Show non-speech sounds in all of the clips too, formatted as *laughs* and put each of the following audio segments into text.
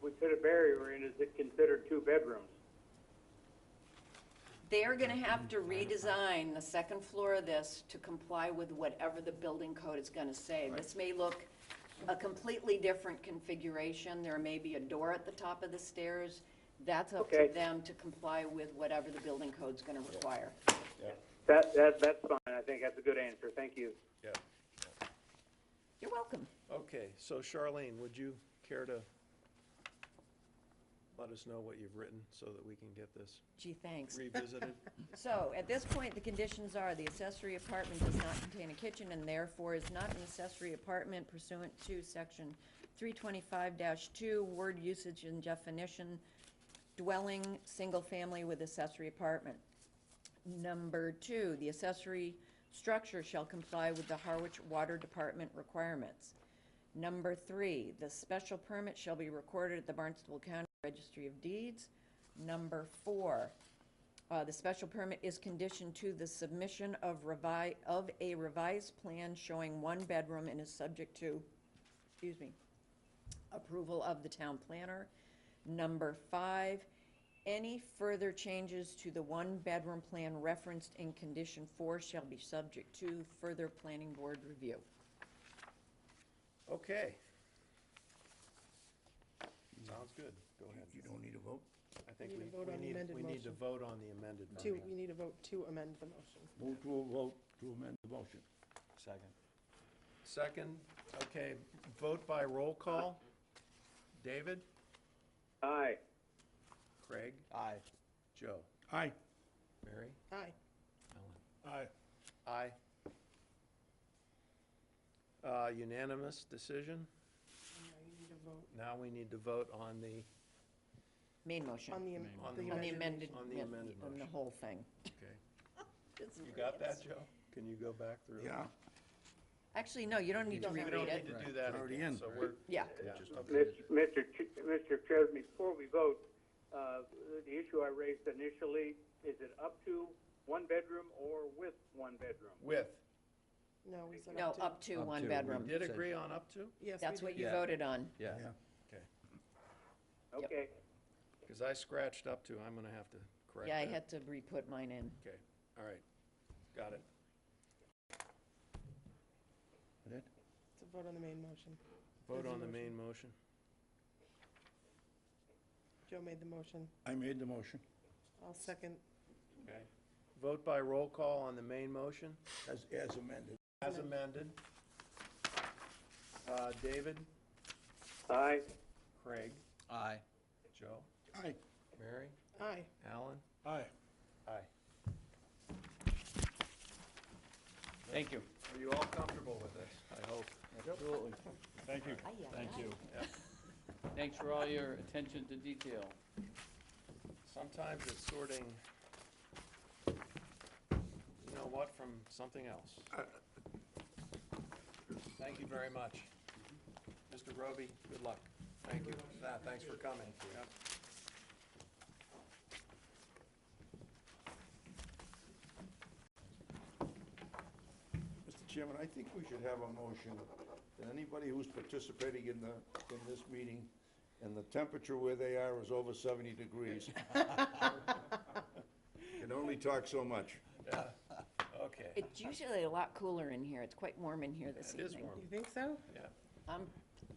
considered barrier in, is it considered two bedrooms? They're gonna have to redesign the second floor of this to comply with whatever the building code is gonna say. This may look a completely different configuration, there may be a door at the top of the stairs. That's up to Okay. them to comply with whatever the building code's gonna require. That, that, that's fine, I think that's a good answer, thank you. Yeah. You're welcome. Okay, so Charlene, would you care to let us know what you've written so that we can get this Gee, thanks. *laughs* revisited? So, at this point, the conditions are, the accessory apartment does not contain a kitchen and therefore is not an accessory apartment pursuant to section three twenty-five two, word usage and definition, dwelling, single family with accessory apartment. Number two, the accessory structure shall comply with the Harwich Water Department requirements. Number three, the special permit shall be recorded at the Barnstable County Registry of Deeds. Number four, uh, the special permit is conditioned to the submission of revi, of a revised plan showing one bedroom and is subject to, excuse me, approval of the town planner. Number five, any further changes to the one-bedroom plan referenced in condition four shall be subject to further planning board review. Okay. Sounds good, go ahead. You don't need a vote? I think Need we, to vote we on the need, amended we need to motion. vote on the amended To, Oh, motion. we need a vote to amend the motion. Vote to a vote to amend the motion. Second. Second, okay, vote by roll call. David? Aye, Craig? Aye. Joe? Aye. Mary? Aye. Aye. Aye. Uh, unanimous decision. Now you need a vote Now we need to vote on the, Main motion. on the, On am- the the On the amended. amended, On the amended on the motion. whole thing. okay. You got that, Joe? Can you go back through? Yeah, Actually, no, you don't need to We We don't reread need it. to do that It's already again, in. so we're, Yeah. yeah, Mis- Mr. Ch- Mr. Chesney, before we vote, uh, the issue I raised initially, is it up to one bedroom or with one bedroom? with, No, we said No, up to. up to Up one to. bedroom. did agree on up to? Yes, That's we what did. you Yeah. voted on. Yeah, yeah. Okay, Yep. Okay, because I scratched up to, I'm gonna have to correct Yeah, I that. had to re-put mine in. Okay, all right, got it. That- To vote on the main motion. Vote There's a on the motion. main motion. Joe made the motion. I made the motion. I'll second. Okay. Vote by roll call on the main motion, As, as amended. as amended. Uh, David, aye, Craig, aye. Joe, Aye. Mary, Aye. Alan? Aye. Aye. Thank you. Are you all comfortable with this? I hope. Absolutely. Thank you. Thank you. Thanks for all your attention to detail. Sometimes it's sorting, you know what, from something else. Uh, Thank you very much. Mr. Roby, good luck. Thank you. Nah, Thanks for coming. Yep. Mr. Chairman, I think we should have a motion that anybody who's participating in the, in this meeting and the temperature where they are is over seventy *laughs* degrees. Can only talk so much. Okay. It's usually a lot cooler in here. It's quite warm in here this It is evening. warm, You think so? yeah. I'm,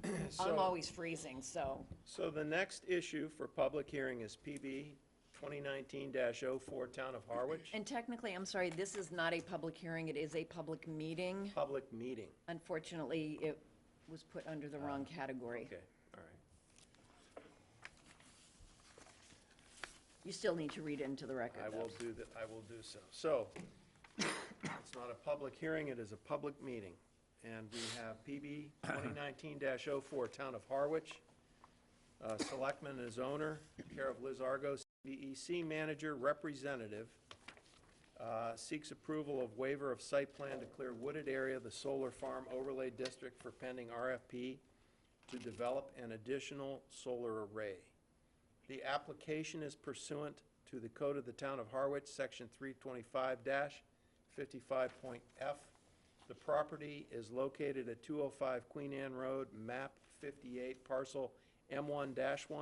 I'm So- always freezing, so. So the next issue for public hearing is PB 2019-04, Town of Harwich, And technically, I'm sorry, this is not a public hearing. It is a public meeting. public meeting. Unfortunately, it was put under the wrong category. Ah, Okay, all right. You still need to read it into the record, I though. will do that, I will do so. So, it's not a public hearing, it is a public meeting. And we have PB 2019-04, Town of Harwich. Uh, Selectman is owner, care of Liz Argo, CBEC manager, representative. uh, Seeks approval of waiver of site plan to clear wooded area of the solar farm overlay district for pending RFP to develop an additional solar array. The application is pursuant to the code of the town of Harwich, section three twenty-five fifty-five point F. The property is located at two oh five Queen Anne Road, map fifty-eight, parcel M one one